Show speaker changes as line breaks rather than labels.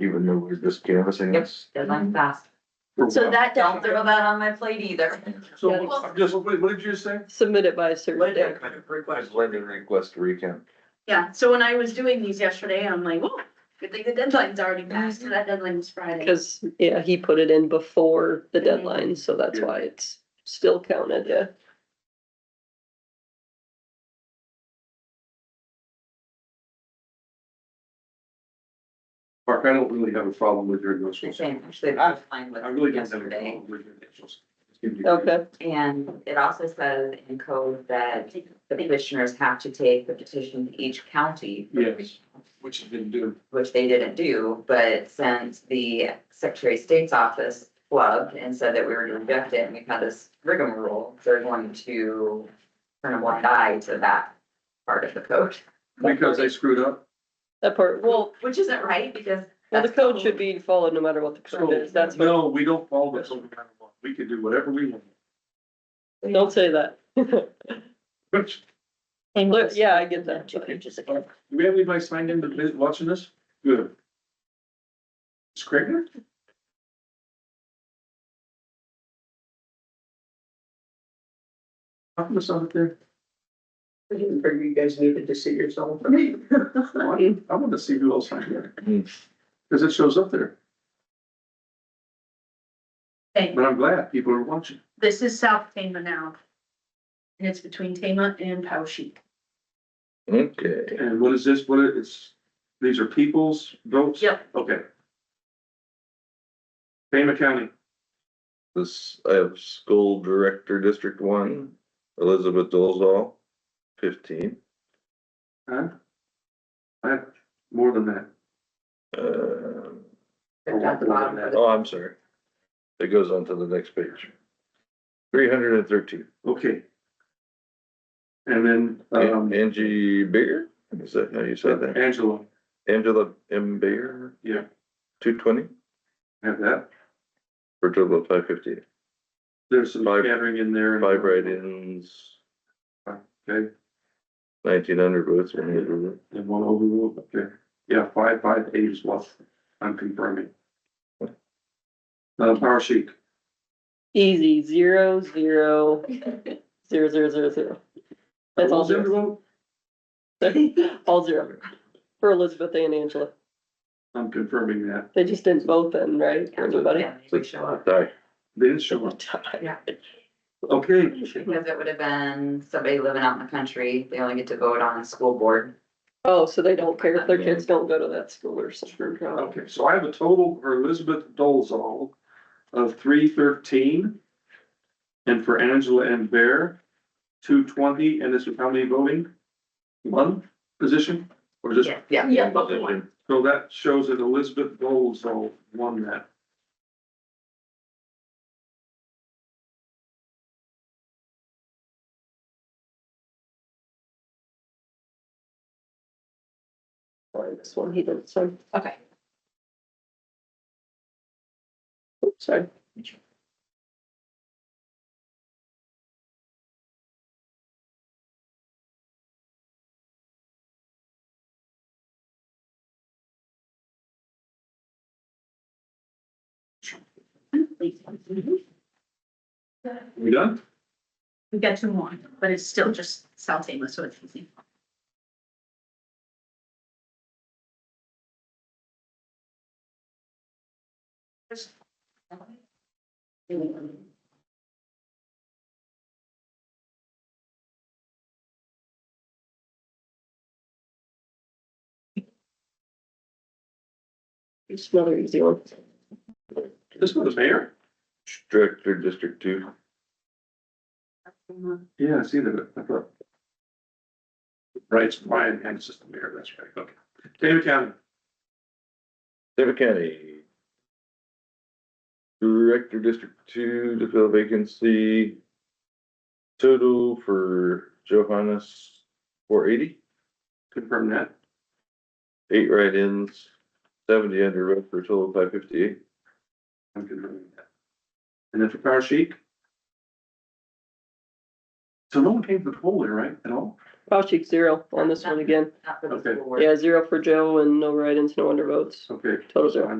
even though we're just canvassing
Yep.
this.
Mm-hmm.
deadline fast.
So that
Don't
doesn't,
throw that on my plate either.
So I'm just, what what did you say?
submit it by a certain date.
Request. Lending request to recount.
yeah, so when I was doing these yesterday, I'm like, whoa, good thing the deadline's already passed, so that deadline was Friday.
Cause, yeah, he put it in before the
Mhm.
deadline, so that's
Yeah.
why it's still counted, yeah.
Mark, I don't really have a problem with your initials.
Same, actually, I was fine with
I really don't have a
yesterday.
problem with your initials. It's gonna be-
Okay,
And it also says in code that the petitioners have to take the petition to each county.
Yes. Which has been due.
Which they didn't do, but since the Secretary of State's office flubbed and said that we were gonna reject it and we've had this rigmarole, they're going to turn a blind eye to that part of the code.
Because they screwed up.
that part, well,
Well, which isn't right because.
well, the
that's-
code should be followed no matter what the code is,
So,
that's, what-
no, we don't follow this. no matter what. We can do whatever we want.
don't say that.
Which,
Look, yeah, I get that.
do we have anybody signed in to visit, watching this? Good. Is Craig there? How come it's not there?
I didn't figure you guys needed to see yourself.
Oh, I I want to see who else signed in.
Hmm.
Cause it shows up there,
Okay,
but I'm glad people are watching.
this is South Tama now. And it's between Tama and Poweshiek.
Okay.
And what is this? What it- it's, these are people's votes?
Yep.
Okay. Tama County,
This, I have school director, District One, Elizabeth Dolzall, fifteen.
huh? I have more than that.
Um
They're at the bottom of the-
oh, I'm sorry. It goes on to the next page. Three hundred and thirteen.
Okay. And then, um,
Angie Bigger, is that how you said that?
Angela,
Angela M. Bigger,
yeah,
two twenty,
have that.
for a total of five fifty.
There's some
Five-
gathering in there. and-
Five write-ins,
Okay,
nineteen hundred votes. one hundred.
and one overruled, okay. Yeah, five, five, eight is what I'm confirming. Uh, Power Chic,
Easy, zero, zero, zero, zero, zero, zero. That's all
Who's in the
zero,
vote?
all zero. For Elizabeth and Angela,
I'm confirming that.
they just didn't vote then, right, for anybody?
Yeah, they would show up.
Aye.
Then show up. Okay,
Because it would have been somebody living out in the country, they only get to vote on a school board.
Oh, so they don't care if their kids don't go to that school or something. Oh,
Okay, so I have a total for Elizabeth Dolzall of three thirteen. And for Angela and Bear, two twenty, and this is how many voting? One position, or just,
Yeah.
Yeah.
so that shows that Elizabeth Dolzall won that.
sorry, This one he didn't, so,
Okay.
oops, sorry.
We've
We done?
got two more, but it's still just South Tama, so it's easy.
It's another easy one.
This was the mayor?
Director, District Two,
Yeah, I see that, I thought. Right, it's Brian and it's just the mayor, that's right, okay. David County,
David County. Director, District Two, to fill vacancy. Total for Johannes, four eighty,
confirm that.
eight write-ins, seventy under vote for a total of five fifty-eight.
I'm confirming that. And then for Power Chic, So no one came to the poll there, right, at all?
Fauci, zero on this one again.
Not for the
Okay.
school board.
Yeah, zero for Joe and no write-ins, no under votes.
Okay.
Total zero.